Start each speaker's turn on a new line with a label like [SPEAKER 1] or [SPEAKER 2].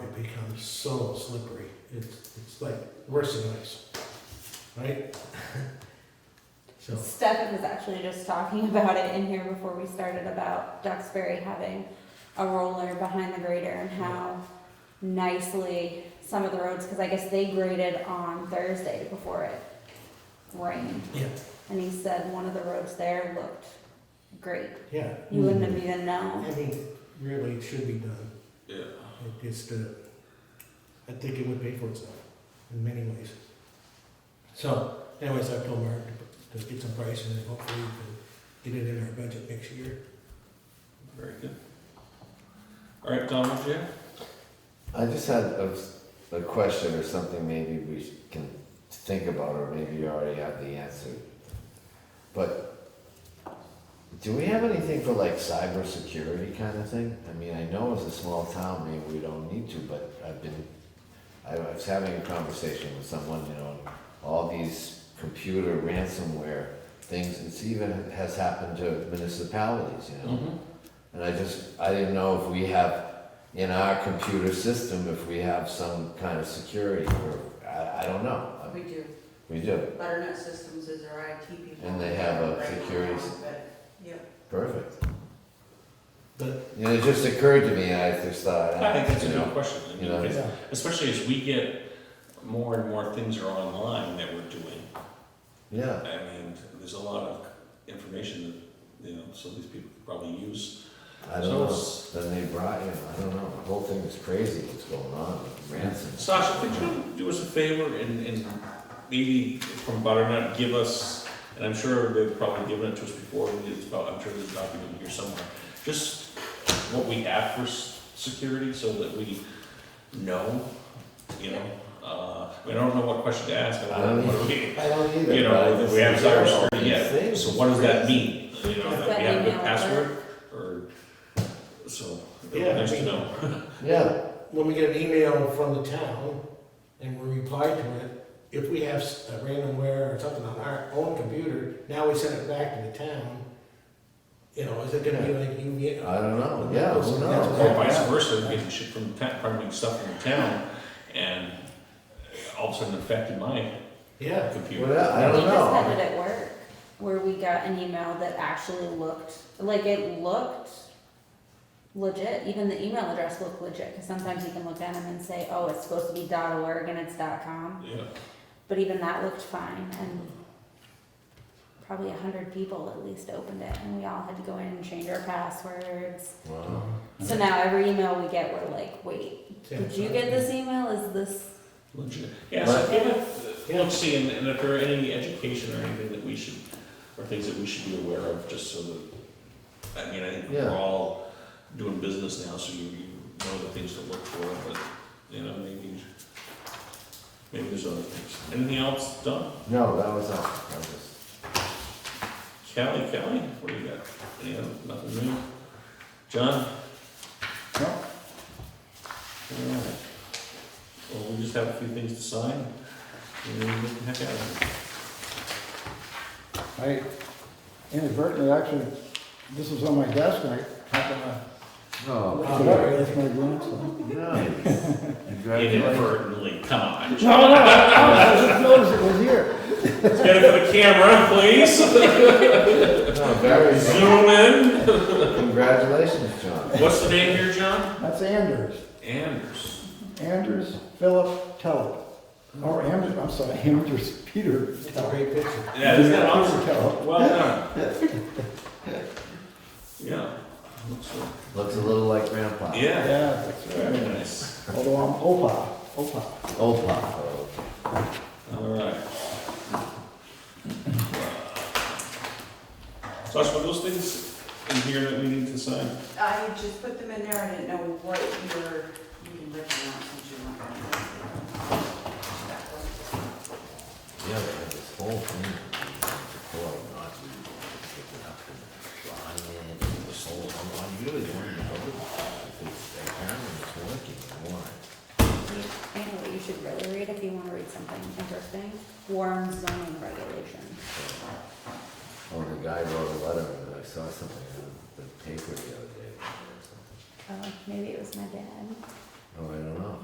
[SPEAKER 1] so slippery. It's, it's like worse than ice, right? So,
[SPEAKER 2] Stefan was actually just talking about it in here before we started about Duxbury having a roller behind the grader and how nicely some of the roads, because I guess they graded on Thursday before it rained.
[SPEAKER 1] yeah,
[SPEAKER 2] And he said one of the roads there looked great.
[SPEAKER 1] yeah.
[SPEAKER 2] You wouldn't have even known.
[SPEAKER 1] I mean, really, it should be done.
[SPEAKER 3] Yeah.
[SPEAKER 1] It- It's the, I think it would pay for itself in many ways. So anyways, I've told Mark to to get some price and then hopefully we can get it in our budget next year.
[SPEAKER 3] Very good. All right, Tom, what you have?
[SPEAKER 4] I just had a, a question or something maybe we sh- can think about, or maybe you already have the answer. But do we have anything for like cybersecurity kind of thing? I mean, I know as a small town, maybe we don't need to, but I've been, I was having a conversation with someone, you know, all these computer ransomware things, it's even has happened to municipalities, you know? And I just, I didn't know if we have, in our computer system, if we have some kind of security, or, I, I don't know.
[SPEAKER 5] We do.
[SPEAKER 4] We do,
[SPEAKER 5] Butternut Systems is our IT people.
[SPEAKER 4] And they have a
[SPEAKER 5] Right now,
[SPEAKER 4] security-
[SPEAKER 5] but, Yeah,
[SPEAKER 4] perfect.
[SPEAKER 1] But,
[SPEAKER 4] You know, it just occurred to me, I just thought.
[SPEAKER 3] I think that's a
[SPEAKER 4] you know,
[SPEAKER 3] good question. I mean,
[SPEAKER 4] you know,
[SPEAKER 3] because-
[SPEAKER 1] yeah,
[SPEAKER 3] Especially as we get more and more things are online that we're doing.
[SPEAKER 4] Yeah,
[SPEAKER 3] I mean, there's a lot of information that, you know, some of these people could probably use.
[SPEAKER 4] I don't
[SPEAKER 3] So
[SPEAKER 4] know,
[SPEAKER 3] it's-
[SPEAKER 4] then they brought, you know, I don't know, the whole thing is crazy, what's going on, ransom.
[SPEAKER 3] Sasha, could you do us a favor and, and maybe from Butternut, give us, and I'm sure they've probably given it to us before, it's about, I'm sure there's a document here somewhere. Just what we have for s- security so that we know, you know? Uh, I mean, I don't know what question to ask, but
[SPEAKER 4] I don't
[SPEAKER 3] what do we?
[SPEAKER 4] I don't either.
[SPEAKER 3] You
[SPEAKER 4] but I
[SPEAKER 3] know,
[SPEAKER 4] just
[SPEAKER 3] we have
[SPEAKER 4] think, oh,
[SPEAKER 3] cybersecurity,
[SPEAKER 4] these
[SPEAKER 3] yeah,
[SPEAKER 4] things
[SPEAKER 3] so
[SPEAKER 4] is
[SPEAKER 3] what does that
[SPEAKER 4] crazy.
[SPEAKER 3] mean? You know, that we have a good password, or, so, it'd be
[SPEAKER 1] Yeah, I
[SPEAKER 3] nice to
[SPEAKER 1] mean-
[SPEAKER 3] know.
[SPEAKER 4] Yeah,
[SPEAKER 1] when we get an email from the town and we reply to it, if we have s- a randomware or something on our own computer, now we send it back to the town. You know, is it gonna be like you get?
[SPEAKER 4] I don't know, yeah, who
[SPEAKER 1] That's
[SPEAKER 4] knows?
[SPEAKER 1] what
[SPEAKER 3] Or vice versa, getting shit from, the town- probably stuff from the town, and all of a sudden affected my
[SPEAKER 1] Yeah,
[SPEAKER 3] computer.
[SPEAKER 4] Well, I
[SPEAKER 2] We
[SPEAKER 4] don't
[SPEAKER 2] just
[SPEAKER 4] know.
[SPEAKER 2] had it at work, where we got an email that actually looked, like it looked legit, even the email address looked legit, cause sometimes you can look at them and say, oh, it's supposed to be dot org and it's dot com,
[SPEAKER 3] Yeah,
[SPEAKER 2] but even that looked fine, and probably a hundred people at least opened it, and we all had to go in and change our passwords.
[SPEAKER 4] Wow.
[SPEAKER 2] So now every email we get, we're like, wait,
[SPEAKER 1] Yeah.
[SPEAKER 2] did you get this email, is this?
[SPEAKER 3] legit. Yeah, so give it,
[SPEAKER 1] Yeah.
[SPEAKER 3] look, see, and, and if there are any education or anything that we should, or things that we should be aware of, just so that, I mean, I think we're
[SPEAKER 4] Yeah.
[SPEAKER 3] all doing business now, so you, you know the things to look for, but, you know, maybe, maybe there's other things. Anything else done?
[SPEAKER 4] No, that was all, that was,
[SPEAKER 3] Kelly, Kelly, what do you got? Any other, nothing new? John? No. Alright. Well, we just have a few things to sign, and then we can heck out of here.
[SPEAKER 6] I inadvertently, actually, this was on my desk, and I happened to
[SPEAKER 4] no,
[SPEAKER 1] Oh,
[SPEAKER 6] pick it up, Oh, that's my grandson.
[SPEAKER 4] nice. Congratulations.
[SPEAKER 3] Inadvertently, come on.
[SPEAKER 6] No, no, I just noticed it was here.
[SPEAKER 3] Let's get it for the camera, please.
[SPEAKER 4] No, very good.
[SPEAKER 3] Zoom in.
[SPEAKER 4] Congratulations, John.
[SPEAKER 3] What's the name here, John?
[SPEAKER 6] That's Anders,
[SPEAKER 3] Anders.
[SPEAKER 6] Anders Philip Tellett. Or Anders, I'm sorry, Anders Peter
[SPEAKER 1] It's a
[SPEAKER 6] Tellett.
[SPEAKER 1] great picture.
[SPEAKER 3] Yeah, isn't that
[SPEAKER 6] Peter
[SPEAKER 3] awesome?
[SPEAKER 6] Tellett.
[SPEAKER 3] Well done. Yeah. looks so-
[SPEAKER 4] Looks a little like grandpa.
[SPEAKER 3] Yeah,
[SPEAKER 6] Yeah, that's
[SPEAKER 3] very
[SPEAKER 6] right.
[SPEAKER 3] nice.
[SPEAKER 6] Although I'm Opa, Opa.
[SPEAKER 4] Opa.
[SPEAKER 3] All right. Sasha, were those things in here that we need to sign?
[SPEAKER 5] I just put them in there, I didn't know what you were, you can rip them out since you want them. That one.
[SPEAKER 4] Yeah, they had this whole thing. Before, not picking up and drawing it, and this whole, I'm, I'm really wanting to go. Because that camera was working, I want.
[SPEAKER 2] I know what you should really read if you wanna read something interesting, Warren zoning regulations.
[SPEAKER 4] Oh, the guy wrote a letter, and I saw something on the paper the other day. or
[SPEAKER 2] Oh,
[SPEAKER 4] something.
[SPEAKER 2] maybe it was my dad.
[SPEAKER 4] Oh, I don't know.